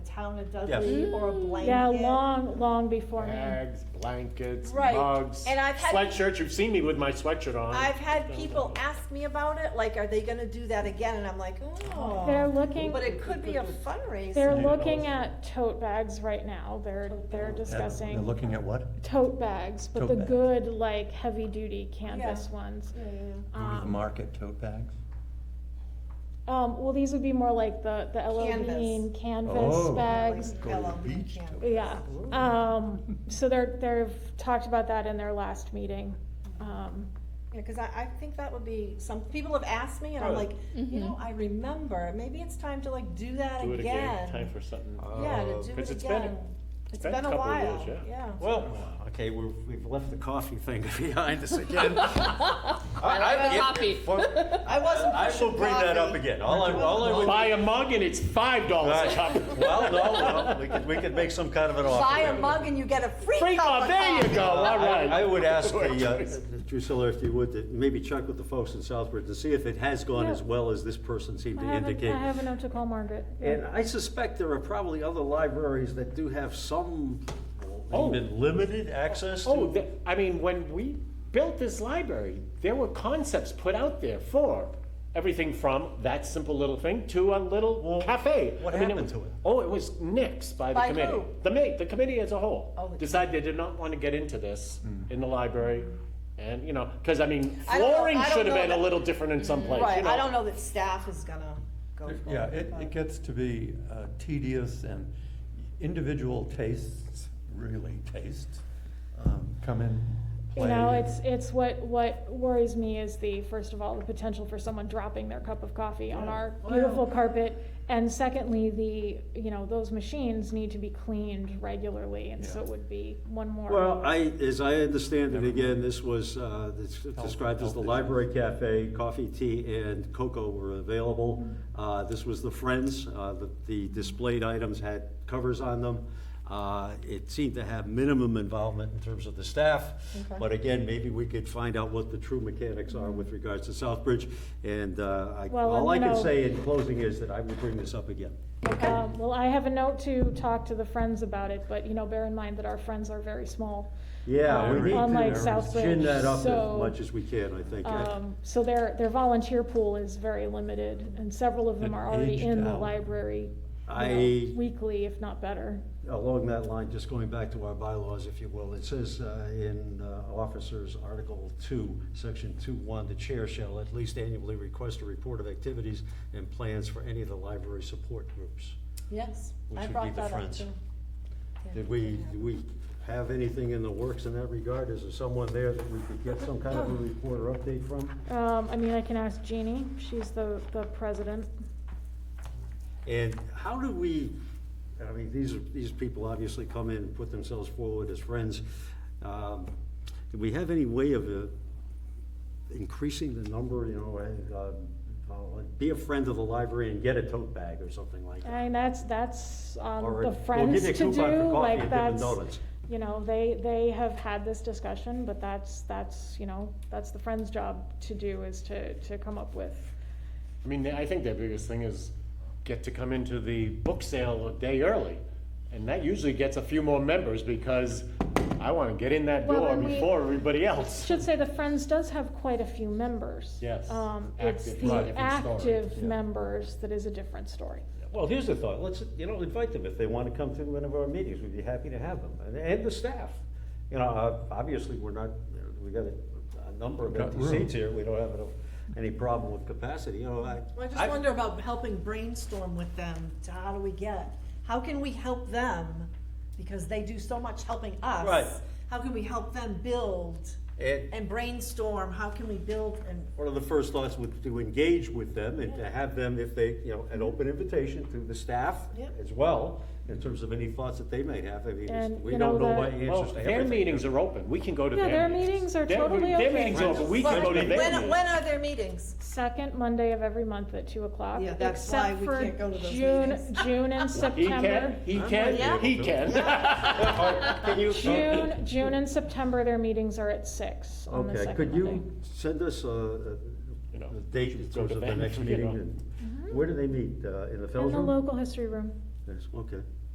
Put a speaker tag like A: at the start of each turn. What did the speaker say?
A: town of
B: Yes.
A: Dudley or a blanket.
C: Yeah, long, long before me.
D: Bags, blankets,
A: Right.
D: mugs,
A: And I've had-
D: sweatshirts. You've seen me with my sweatshirt on.
A: I've had people ask me about it, like, are they gonna do that again? And I'm like,
C: They're
A: oh.
C: looking,
A: But it could be a fundraiser.
C: they're
B: Yeah.
C: looking at tote bags right now. They're, they're
B: They're
C: discussing
B: looking at what?
C: tote bags, but
B: Tote
C: the
B: bags.
C: good, like, heavy-duty canvas
A: Yeah.
C: ones.
A: Yeah, yeah.
B: Go to the
C: Um,
B: market tote bags?
C: Um, well, these would be more like the, the
A: Canvas.
C: Elohim canvas
B: Oh.
C: bags.
A: Like
B: Go to
A: yellow
B: the beach
A: canvas.
B: tote.
C: Yeah, um, so they're, they've talked about that in their last meeting. Um,
A: Yeah, cause I, I think that would be, some, people have asked me and I'm like, you
C: Mm-hmm.
A: know, I remember, maybe it's time to like do that
E: Do it
A: again.
E: again, time for something.
D: Um,
A: Yeah, to do
E: 'Cause
A: it
E: it's been-
A: again. It's been a
E: couple of
A: while,
E: years,
A: yeah.
E: Well,
D: okay, we've, we've left the coffee thing behind us again.
F: love coffee.
A: I wasn't
B: I
A: pushing
B: will bring that up
A: coffee.
B: again. All I, all I would.
D: Buy a mug and it's five dollars a cup.
B: Right. Well, no, no, we could, we could make some kind of an offer.
A: Buy a mug and you get a free
D: Free
A: cup
D: cup,
A: of
D: there you
A: coffee.
D: go, all
B: I I
D: right.
B: would ask the, uh,
G: Drusilla, if you would, that maybe check with the folks in Southbridge and see if it has gone as
C: Yeah.
G: well as this person seemed
C: I
G: to
C: haven't,
G: indicate.
C: I have a note to call Margaret.
G: And I suspect there are probably other libraries that do have some,
D: Oh.
B: even limited access
D: Oh,
B: to.
D: the- I mean, when we built this library, there were concepts put out there for everything from that simple little thing to a little
B: Well,
D: cafe.
B: what
D: I mean,
B: happened
D: was-
B: to it?
D: Oh, it was nixed by the
A: By
D: committee.
A: who?
D: The ma, the committee as a whole
A: Oh, the-
D: decided they did not want to get into this
B: Hmm.
D: in the library. And, you know, because I mean,
A: I don't know-
D: flooring
A: I don't
D: should have
A: know
D: been a
A: that- Mm-hmm.
D: little different in some places. you
A: Right, I
D: know.
A: don't know that staff is gonna go for it.
B: Yeah, it, it gets to be uh, tedious and individual tastes, really tastes, um, come in, play.
C: You know, it's, it's what, what worries me is the, first of all, the potential for someone dropping their cup of coffee on our beautiful carpet. And secondly, the, you know, those machines need to be cleaned regularly, and so it would be one more.
G: well, I, as I understand it, again, this was, uh, it's described as the Library Cafe, coffee, tea, and cocoa were available. Uh, This was the Friends, uh, the- the displayed items had covers on them. Uh, It seemed to have minimum involvement in terms of the staff, but again, maybe we could find out what the true mechanics are with regards to Southbridge. And uh, I-
C: Well,
G: all I
C: and,
G: can
C: you know-
G: say in closing is that I will bring this up again.
C: Um, well, I have a note to talk to the friends about it, but, you know, bear in mind that our friends are very small.
G: Yeah, we
B: Um,
G: need
C: Unlike
G: to
C: Southbridge,
G: chin that up
C: so,
G: as much as we can, I think.
C: Um, so their, their volunteer pool is very limited, and several of them
B: And
C: are already
B: aged
C: in the
B: out.
C: library. you know,
G: I-
C: Weekly, if not better.
G: Along that line, just going back to our bylaws, if you will, it says uh, in uh, Officers Article 2, Section 2.1, the chair shall at least annually request a report of activities and plans for any of the library support groups.
A: Yes,
G: Which
A: I
G: would be
A: brought
G: the
A: that up
G: friends.
A: too.
G: Did we, do we have anything in the works in that regard? Is there someone there that we could get some kind of a report or update from?
C: Um, I mean, I can ask Jeannie, she's the, the president.
G: And how do we, I mean, these, are- these people obviously come in and put themselves forward as friends. Um, Do we have any way of uh, increasing the number, you know, and, uh, uh, be a friend of the library and get a tote bag or something like that?
C: I mean, that's, that's on
G: Or
C: Um, the
G: we'll
C: friends
G: give you a
C: to do,
G: coupon for coffee
C: like,
G: at Dippin'
C: that's,
G: Donuts.
C: you know, they, they have had this discussion, but that's, that's, you know, that's the friends' job to do, is to, to come up with.
D: I mean, I think their biggest thing is get to come into the book sale a day early. And that usually gets a few more members because I want to get in that
C: Well,
D: door
C: and we-
D: before everybody else.
C: Should say the Friends does have quite a few members.
D: Yes.
C: Um, it's
D: Active, right,
C: the
D: different story,
C: active members that is a different story.
G: Well, here's the thought, let's, you know, invite them, if they want to come to one of our meetings, we'd be happy to have them, and, and the staff. You know, uh, obviously, we're not, we got a, a number of
B: Got
G: empty
B: room.
G: seats here, we don't have enough- any problem with capacity, you know, I.
A: Well, I just wonder about helping brainstorm with them, to how do we get, how can we help them? Because they do so much helping us.
G: Right.
A: How can we help them build
G: And
A: and brainstorm, how can we build and,
G: one of the first thoughts would to engage with them and to have them, if they, you know, an open invitation to the staff
A: Yep.
G: as well, in terms of any thoughts that they might have. I mean, it's-
C: And,
G: we
C: you
G: don't
C: know,
G: know what
C: the-
D: Well,
G: answers to
D: their
G: everything.
D: meetings are open. We can go to
C: Yeah,
D: their meetings.
C: their meetings are
D: Their-
C: totally
D: Their
C: okay.
D: meetings are open. We can go to
A: when,
D: their meetings.
A: when are their meetings?
C: Second Monday of every month at two o'clock.
A: Yeah, that's why
C: except
A: we
C: for
A: can't go to those
C: June-
A: meetings.
C: June and
D: He can,
C: September.
D: he can,
A: like,
D: he can.
G: Can you-
C: June, June and September, their meetings are at six on the
G: Okay,
C: second
G: could
C: Monday.
G: you send us a,
D: You know,
G: a date in
D: go
G: terms
D: to
G: of the
D: them,
G: next
D: you
G: meeting?
D: know.
G: Mm-hmm. and- Where do they meet? Uh, In the
C: In
G: Fells
C: the
G: room?
C: local history room.
G: There's, okay.